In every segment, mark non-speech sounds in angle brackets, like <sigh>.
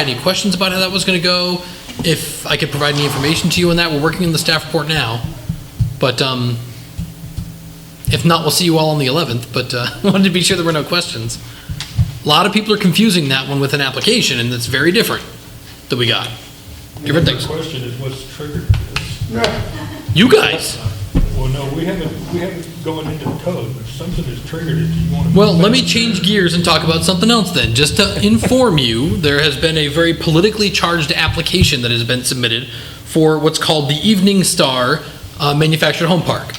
Any questions about how that was going to go? If I could provide any information to you on that, we're working on the staff report now. But um, if not, we'll see you all on the 11th, but uh, <laughs> wanted to be sure there were no questions. A lot of people are confusing that one with an application, and it's very different that we got. Different The things. question is what's triggered this? You guys, Well, no, we haven't, we haven't gone into the code, but if something has triggered it, you want to. well, let me change gears and talk about something else then. Just to inform you, there has been a very politically charged application that has been submitted for what's called the Evening Star uh, Manufactured Home Park.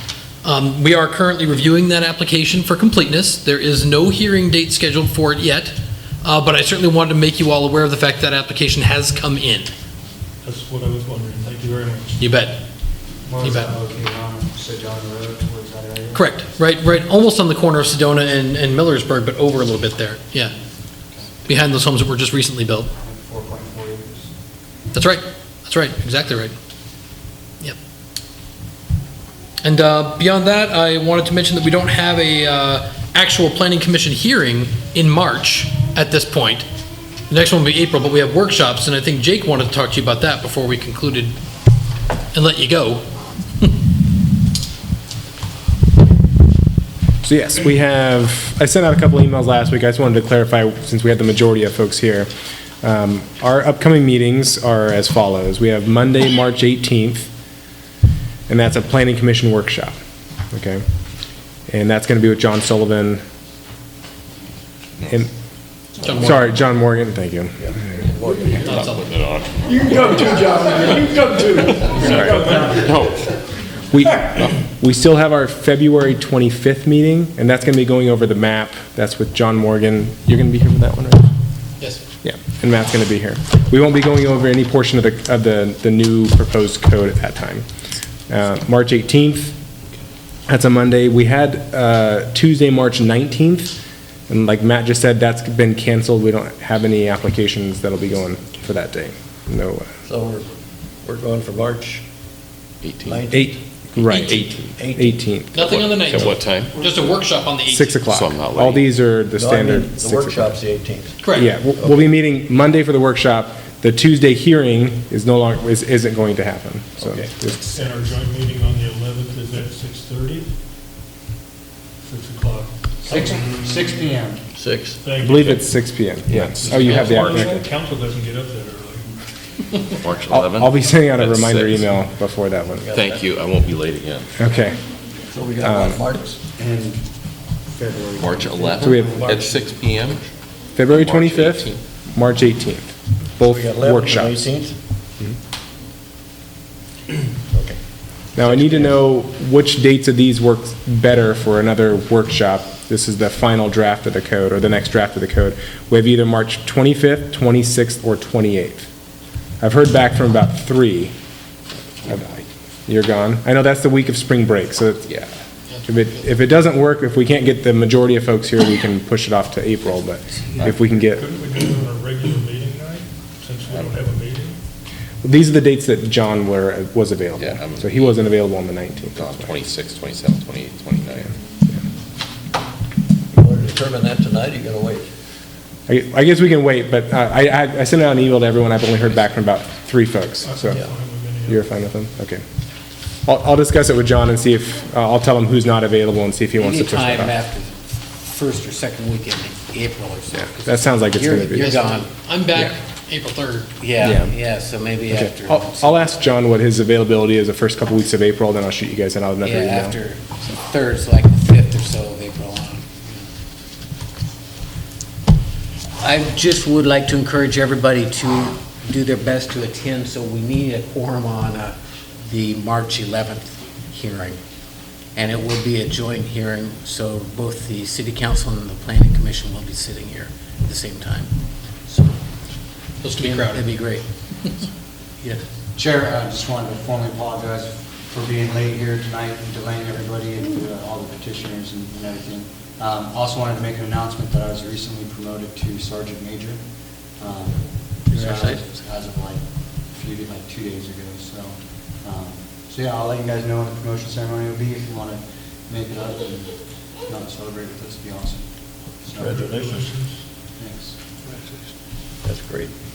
Um, We are currently reviewing that application for completeness. There is no hearing date scheduled for it yet, uh, but I certainly wanted to make you all aware of the fact that application has come in. That's what I was wondering, thank you very much. You bet. Well, You is bet. that located on Sedona Road towards that area? Correct. Right, right, almost on the corner of Sedona and, and Millersburg, but over a little bit there. Yeah. Behind those homes that were just recently built. Four point four acres. That's right. That's right. Exactly right. Yep. And uh, beyond that, I wanted to mention that we don't have a uh, actual planning commission hearing in March at this point. The next one will be April, but we have workshops, and I think Jake wanted to talk to you about that before we concluded and let you go. So yes, we have, I sent out a couple emails last week, I just wanted to clarify, since we had the majority of folks here. Um, Our upcoming meetings are as follows. We have Monday, March 18th, and that's a planning commission workshop, okay? And that's going to be with John Sullivan. and- John Moore. Sorry, John Morgan, thank you. Not Sullivan. We, we still have our February 25th meeting, and that's going to be going over the map. That's with John Morgan. You're going to be here for that one, right? Yes. Yeah, and Matt's going to be here. We won't be going over any portion of the, of the, the new proposed code at that time. Uh, March 18th, that's a Monday. We had uh, Tuesday, March 19th, and like Matt just said, that's been canceled. We don't have any applications that'll be going for that day. No, uh, So we're, we're going for March 18th. eight, right. 18th, Nothing on the At 19th. what time? Just a workshop on the 18th. six o'clock. So I'm not All late. these are the No, I mean, standard. The six o'clock. workshop's the 18th. Correct. Yeah, we'll, we'll be meeting Monday for the workshop. The Tuesday hearing is no longer, is, isn't going to happen, so. Okay. it's- And our joint meeting on the 11th is at 6:30? 6 o'clock. Six, six P M. Six. I believe it's six P M, yes. Oh, you have the, okay. Council doesn't get up that early. March I'll, I'll 11th? be sending out a That's reminder six. email before that one. Thank you, I won't be late again. Okay, So we got one March. And February. March 11th? So we have- At 6 PM? February March twenty-fifth, March eighteenth, both We got 11th and workshops. 18th. Okay. Now, I need to know which dates of these work better for another workshop. This is the final draft of the code, or the next draft of the code. We have either March 25th, 26th, or 28th. I've heard back from about three. You're gone? I know that's the week of spring break, so, it's- yeah. If it, if it doesn't work, if we can't get the majority of folks here, we can push it off to April, but if we can get, Couldn't we do it on a regular meeting night, since we don't have a meeting? these are the dates that John were, was available. Yeah, I'm- So he wasn't available on the 19th. No, 26, 27, 28, 29. You want to determine that tonight, or you got to wait? I I guess we can wait, but uh, I, I I sent out an email to everyone, I've only heard back from about three folks, so. I'm fine with any of You're fine with them? Okay. I'll, I'll discuss it with John and see if, uh, I'll tell him who's not available and see if he wants to push Anytime that off. after first or second weekend in April or so. 'cause That sounds like it's you're- gonna be. You're gone, I'm back April 3rd. yeah, Yeah. yeah, so maybe Okay. Oh, after. I'll, I'll ask John what his availability is the first couple weeks of April, then I'll shoot you guys another email. Yeah, after so third, so like the fifth or so of April on. I just would like to encourage everybody to do their best to attend, so we need a quorum on uh, the March 11th hearing. And it will be a joint hearing, so both the city council and the planning commission will be sitting here at the same time. So Supposed to be crowded. It'd be great. Yeah. Chair, I just wanted to formally apologize for being late here tonight and delaying everybody and uh, all the petitioners and and everything. Um, Also wanted to make an announcement that I was recently promoted to sergeant major. um, so Congratulations. As of like, a few, like two days ago, so. um, So yeah, I'll let you guys know when the promotion ceremony will be if you want to make it up and if not celebrate with us, it'd be awesome. Congratulations. Thanks. That's great.